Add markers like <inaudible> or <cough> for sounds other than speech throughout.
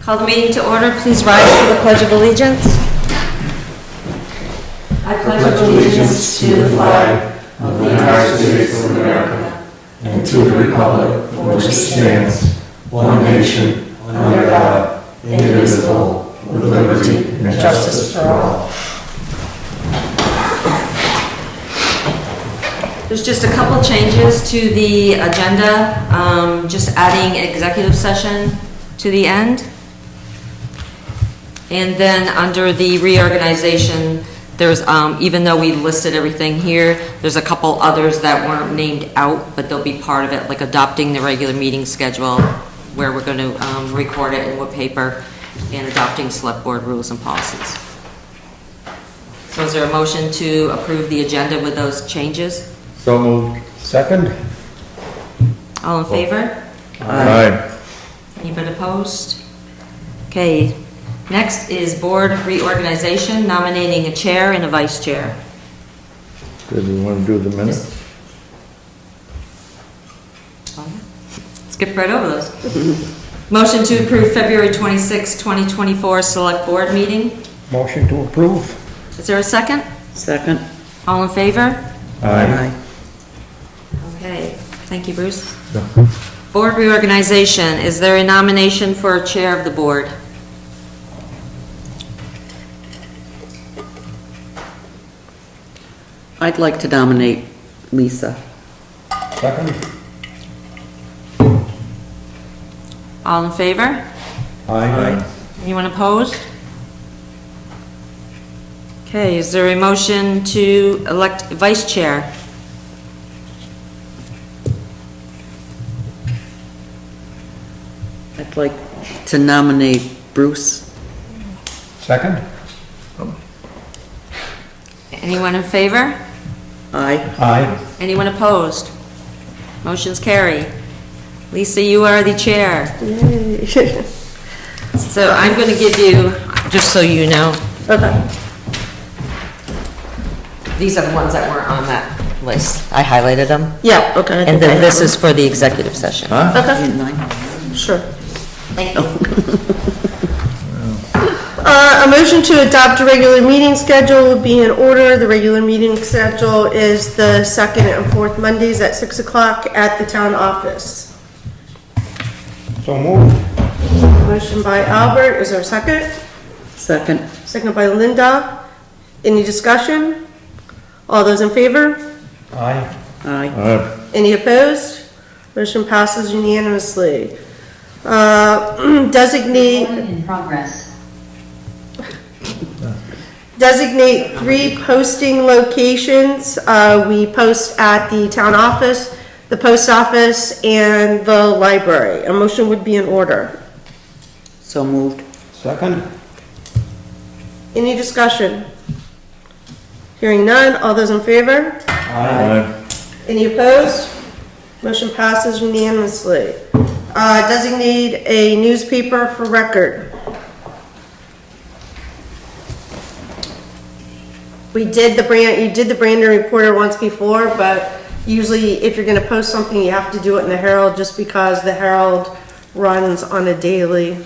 Call the meeting to order. Please rise for the Pledge of Allegiance. I pledge allegiance to the flag. of the United States of America and to the republic for which it stands, one nation, under God, indivisible, with liberty and justice for all. There's just a couple changes to the agenda, um, just adding executive session to the end. And then under the reorganization, there's, um, even though we listed everything here, there's a couple others that weren't named out, but they'll be part of it, like adopting the regular meeting schedule, where we're going to um, record it in what paper, and adopting select board rules and policies. So is there a motion to approve the agenda with those changes? So moved. Second? All in favor? Aye. Anybody opposed? Okay, next is board reorganization, nominating a chair and a vice chair. Did you want to do the minutes? Skip right over those. Motion to approve February 26, 2024 Select Board Meeting. Motion to approve? Is there a second? Second. All in favor? Aye. Okay, thank you, Bruce. Board reorganization, is there a nomination for a chair of the board? I'd like to nominate Lisa. Second? All in favor? Aye. Anyone opposed? Okay, is there a motion to elect vice chair? I'd like to nominate Bruce. Second? Anyone in favor? Aye. Aye. Anyone opposed? Motion's carry. Lisa, you are the chair. So I'm going to give you, just so you know. These are the ones that weren't on that list. I highlighted them. Yeah, okay. I And think I then have this is for the executive session. Didn't I? them. Sure. Thank you. <laughs> Uh, A motion to adopt a regular meeting schedule would be in order. The regular meeting schedule is the second and fourth Mondays at 6 o'clock at the town office. So moved. Motion by Albert, is there a second? Second. Second by Linda. Any discussion? All those in favor? Aye. Aye. Aye. Any opposed? Motion passes unanimously. Uh, <clears throat> Designate in progress. designate three posting locations. Uh, We post at the town office, the post office, and the library. A motion would be in order. So moved. Second? Any discussion? Hearing none, all those in favor? Aye. Any opposed? Motion passes unanimously. Uh, Designate a newspaper for record. We did the brand, you did the Brandon Reporter once before, but usually if you're gonna post something, you have to do it in the Herald just because the Herald runs on a daily.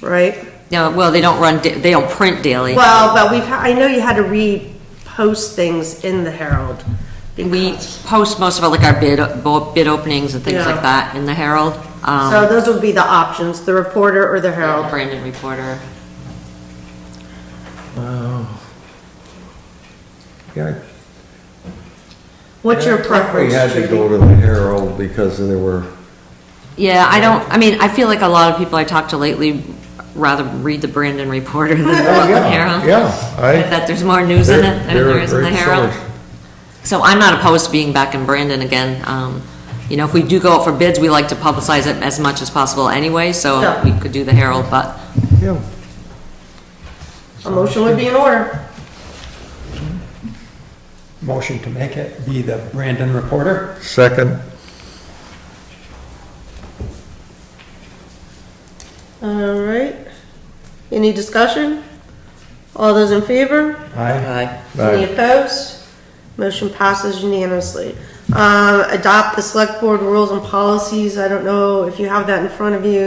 Right? No, well, they don't run, da- they don't print daily. Well, but we've, ha- I know you had to repost things in the Herald. We because- post most of it, like our bid, bo- bid openings and things Yeah. like that in the Herald. um, So those would be the options, the reporter or the Herald. Brandon Reporter. Yeah, What's your we preference? had to go to the Herald because there were, Yeah, I don't, I mean, I feel like a lot of people I talk to lately rather read the Brandon Reporter than the Rutland Herald. Yeah, aye. That there's more news in it than There- there is in the there- there's so Herald. much. So I'm not opposed to being back in Brandon again. Um, You know, if we do go out for bids, we like to publicize it as much as possible anyway, so Yeah. we could do the Herald, but yeah, A motion would be in order. Motion to make it be the Brandon Reporter. second, All right. Any discussion? All those in favor? Aye. Aye. Any aye, opposed? Motion passes unanimously. Uh, Um, Adopt the select board rules and policies. I don't know if you have that in front of you.